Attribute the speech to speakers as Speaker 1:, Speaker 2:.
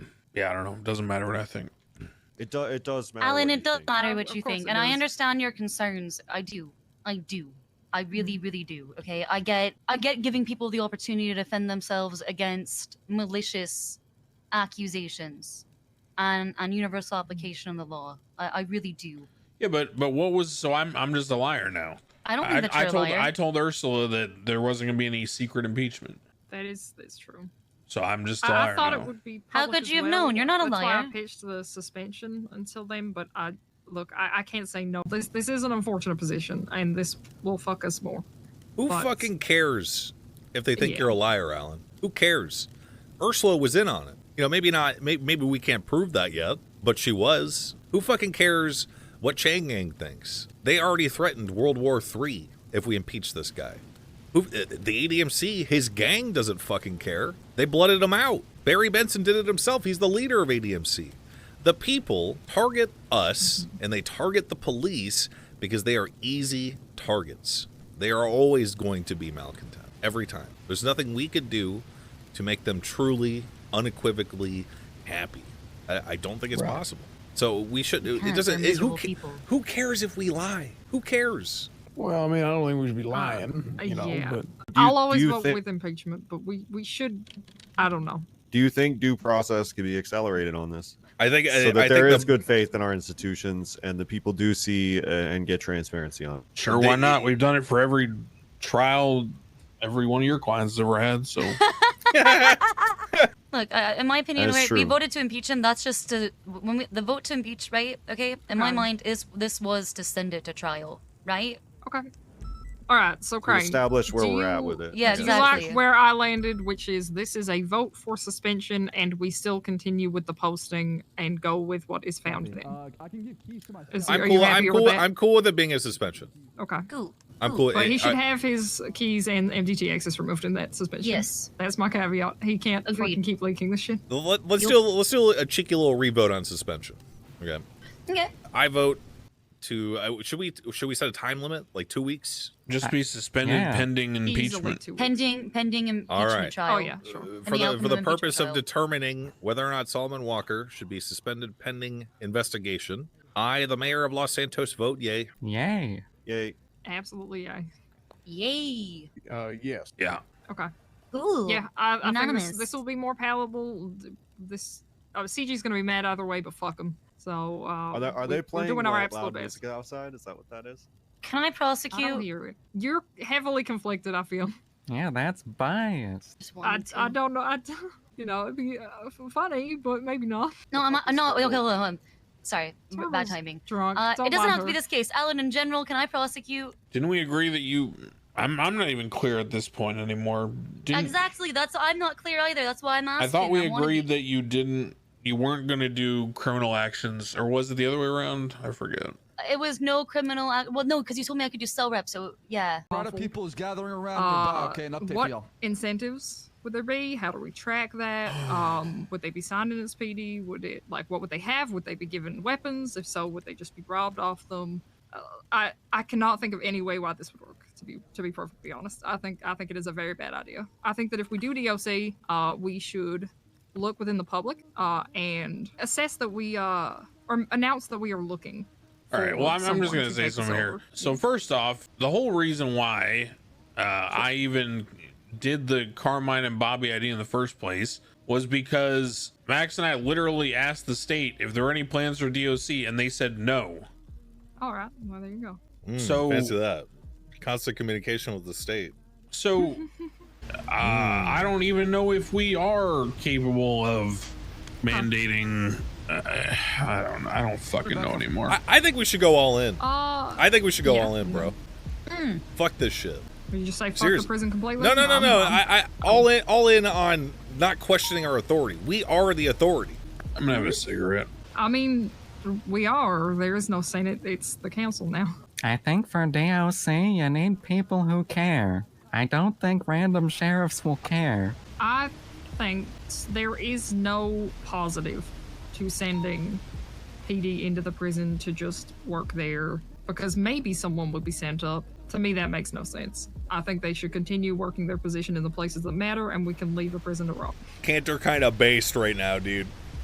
Speaker 1: yeah, I don't know. Doesn't matter what I think.
Speaker 2: It does. It does matter.
Speaker 3: Alan,
Speaker 2: what you
Speaker 3: it does
Speaker 2: think.
Speaker 3: matter
Speaker 4: Um,
Speaker 3: what
Speaker 4: of
Speaker 3: you
Speaker 4: course
Speaker 3: think,
Speaker 4: it
Speaker 3: and I
Speaker 4: does.
Speaker 3: understand your concerns. I do. I do. I really,
Speaker 4: Mm.
Speaker 3: really do. Okay, I get. I get giving people the opportunity to defend themselves against malicious accusations, and and universal
Speaker 4: Mm.
Speaker 3: application of the law. I, I really do.
Speaker 1: Yeah, but but what was so? I'm I'm just a liar now.
Speaker 3: I don't think
Speaker 1: I,
Speaker 3: that
Speaker 1: I
Speaker 3: you're a
Speaker 1: told
Speaker 3: liar.
Speaker 1: I told Ursula that there wasn't gonna be any secret impeachment.
Speaker 4: That is that's true.
Speaker 1: So I'm just a
Speaker 4: I,
Speaker 1: liar
Speaker 4: I thought
Speaker 1: now.
Speaker 4: it would be.
Speaker 3: How
Speaker 4: public
Speaker 3: could
Speaker 4: as
Speaker 3: you have
Speaker 4: well.
Speaker 3: known? You're not a
Speaker 4: That's Why
Speaker 3: liar.
Speaker 4: I pitched the suspension until then, but I look. I, I can't say no. This this is an unfortunate position, and this will fuck us more.
Speaker 5: Who
Speaker 4: But-
Speaker 5: fucking cares if they think
Speaker 4: Yeah.
Speaker 5: you're a liar, Alan? Who cares? Ursula was in on it. You know, maybe not. Maybe, maybe we can't prove that yet, but she was. Who fucking cares what Chang Gang thinks? They already threatened World War III if we impeach this guy. Who, uh, the ADMC, his gang doesn't fucking care. They blooded him out. Barry Benson did it himself. He's the leader of ADMC. The people target us and they target the police because they are easy targets. They are always going to be malcontent every time. There's nothing we could do to make them truly, unequivocally happy. I, I don't think it's possible. So we should. It,
Speaker 3: can't.
Speaker 5: doesn't.
Speaker 3: They're
Speaker 5: It, who,
Speaker 3: miserable
Speaker 5: ca-
Speaker 3: people.
Speaker 5: who cares if we lie? Who cares?
Speaker 6: Well, I mean, I don't think we should be lying,
Speaker 4: Uh,
Speaker 6: you know.
Speaker 4: yeah.
Speaker 6: But
Speaker 4: I'll always
Speaker 2: do
Speaker 4: vote
Speaker 2: thi-
Speaker 4: with impeachment, but we we should. I don't know.
Speaker 2: Do you think due process could be accelerated on this?
Speaker 5: I think. I-
Speaker 2: so that
Speaker 5: I
Speaker 2: there
Speaker 5: think
Speaker 2: is good faith in our institutions and the people do see uh, and get transparency on. it.
Speaker 1: Sure,
Speaker 5: They-
Speaker 1: why not? We've done it for every trial every one of your clients has ever had. So
Speaker 3: Look, uh, in my opinion,
Speaker 2: That is
Speaker 3: right, we
Speaker 2: true.
Speaker 3: voted to impeach him. That's just to, when we, the vote to impeach, right? Okay, in my
Speaker 4: Okay.
Speaker 3: mind, is this was to send it to trial, right?
Speaker 4: Okay. All right. So,
Speaker 2: To
Speaker 4: Crane.
Speaker 2: establish where
Speaker 4: do
Speaker 2: we're at
Speaker 4: you-
Speaker 2: with it.
Speaker 3: yeah,
Speaker 4: Do you
Speaker 3: Exactly.
Speaker 4: like where I landed, which is this is a vote for suspension, and we still continue with the posting and go with what is found then.
Speaker 7: Uh, I can give keys to my
Speaker 4: Is
Speaker 7: shop.
Speaker 5: I'm
Speaker 4: are you
Speaker 5: cool.
Speaker 4: happy
Speaker 5: I'm
Speaker 4: with
Speaker 5: cool.
Speaker 4: that?
Speaker 5: I'm cool with it being a suspension.
Speaker 4: Okay.
Speaker 3: Cool.
Speaker 5: I'm
Speaker 3: Ooh,
Speaker 5: cool.
Speaker 4: But he
Speaker 5: I-
Speaker 4: should
Speaker 5: I-
Speaker 4: have his keys and MDT access removed in that suspension.
Speaker 3: Yes.
Speaker 4: That's my caveat. He can't
Speaker 3: Agreed.
Speaker 4: fucking keep leaking this shit.
Speaker 5: Let, us do let's do a cheeky little revote on suspension. Okay.
Speaker 3: Okay.
Speaker 5: I vote to uh, should we should we set a time limit like two weeks
Speaker 1: just be suspended
Speaker 7: yeah.
Speaker 1: pending
Speaker 4: Easily
Speaker 1: impeachment.
Speaker 4: two weeks.
Speaker 3: Pending, pending impeachment
Speaker 5: All right.
Speaker 3: trial.
Speaker 4: Oh yeah, sure.
Speaker 5: Uh,
Speaker 3: the
Speaker 5: for the
Speaker 3: outcome
Speaker 5: for the
Speaker 3: of impeachment
Speaker 5: purpose of
Speaker 3: trial.
Speaker 5: determining whether or not Solomon Walker should be suspended pending investigation. I, the mayor of Los Santos, vote yay.
Speaker 7: Yay.
Speaker 2: Yay.
Speaker 4: Absolutely, yeah.
Speaker 3: Yay.
Speaker 6: uh, yes,
Speaker 1: Yeah.
Speaker 4: Okay.
Speaker 3: Cool.
Speaker 4: Yeah, I, I think this,
Speaker 3: Unanimous.
Speaker 4: this will be more palatable. Th- This oh, CG's gonna be mad either way, but fuck him. So uh,
Speaker 2: Are they, are
Speaker 4: we-
Speaker 2: they playing
Speaker 4: We're doing our
Speaker 2: loud-
Speaker 4: absolute
Speaker 2: loud
Speaker 4: best.
Speaker 2: music outside? Is that what that is?
Speaker 3: Can I
Speaker 4: I don't
Speaker 3: prosecute?
Speaker 4: hear it. You're heavily conflicted. I feel.
Speaker 7: Yeah, that's biased.
Speaker 3: Just
Speaker 4: I,
Speaker 3: wanted
Speaker 4: I
Speaker 3: to.
Speaker 4: don't know. I d- you know it'd be uh, f- funny, but maybe not.
Speaker 3: No, I'm, I'm not. Okay, hold on, hold on. Sorry,
Speaker 4: It's
Speaker 3: b-
Speaker 4: one of
Speaker 3: bad
Speaker 4: those
Speaker 3: timing.
Speaker 4: Drunk.
Speaker 3: Uh,
Speaker 4: don't
Speaker 3: it doesn't
Speaker 4: mind
Speaker 3: have to be
Speaker 4: her.
Speaker 3: this case. Alan, in general, can I prosecute?
Speaker 1: Didn't we agree that you? I'm I'm not even clear at this point anymore. Didn't
Speaker 3: Exactly. That's I'm not clear either. That's why I'm asking.
Speaker 1: Mm. I thought we
Speaker 3: wanna
Speaker 1: agreed
Speaker 3: be-
Speaker 1: that you didn't you weren't going to do criminal actions or was it the other way around? I forget.
Speaker 3: it was no criminal. ac- Well, no, because you told me I could do cell rep. So yeah.
Speaker 7: A lot of people is gathering around.
Speaker 4: Uh,
Speaker 7: me. okay, an update
Speaker 4: what
Speaker 7: for y'all.
Speaker 4: incentives would there be? How do we track that? Um, would they be signed in as PD? Would it like what would they have? Would they be given weapons? If so, would they just be robbed off them? Uh, I I cannot think of any way why this would work. To be to be perfectly honest, I think I think it is a very bad idea. I think that if we do DOC, uh, we should look within the public uh, and assess that we uh, or announce that we are looking.
Speaker 1: All right.
Speaker 4: for
Speaker 1: Well, I'm, I'm just
Speaker 4: someone
Speaker 1: going
Speaker 4: to
Speaker 1: to say
Speaker 4: take us
Speaker 1: something here.
Speaker 4: over.
Speaker 1: So first off, the whole reason why uh, I even did the Carmine and Bobby ID in the first place was because Max and I literally asked the state if there were any plans for DOC, and they said no.
Speaker 4: All right. Well, there you go.
Speaker 5: Mm,
Speaker 1: So-
Speaker 5: fancy that. Constant communication with the state.
Speaker 1: So uh, I don't even know if we are capable of mandating. Uh, I don't. I don't fucking know anymore.
Speaker 5: I, I think we should go all in.
Speaker 4: Uh,
Speaker 5: I think we should go
Speaker 4: Yeah. Hmm.
Speaker 5: all in, bro. Fuck this shit.
Speaker 4: Would you just say fuck
Speaker 5: Seriously.
Speaker 4: the prison completely?
Speaker 5: No, no, no,
Speaker 4: I'm-
Speaker 5: no.
Speaker 4: I'm-
Speaker 5: I, I all in, all in on not questioning our authority. We are the authority.
Speaker 1: I'm gonna have a cigarette.
Speaker 4: I mean, we are. There is no Senate. It's the council now.
Speaker 7: I think for DOC, you need people who care. I don't think random sheriffs will care.
Speaker 4: I think there is no positive to sending PD into the prison to just work there because maybe someone would be sent up. To me, that makes no sense. I think they should continue working their position in the places that matter, and we can leave the prison to rot.
Speaker 5: Cantor kind of based right now, dude.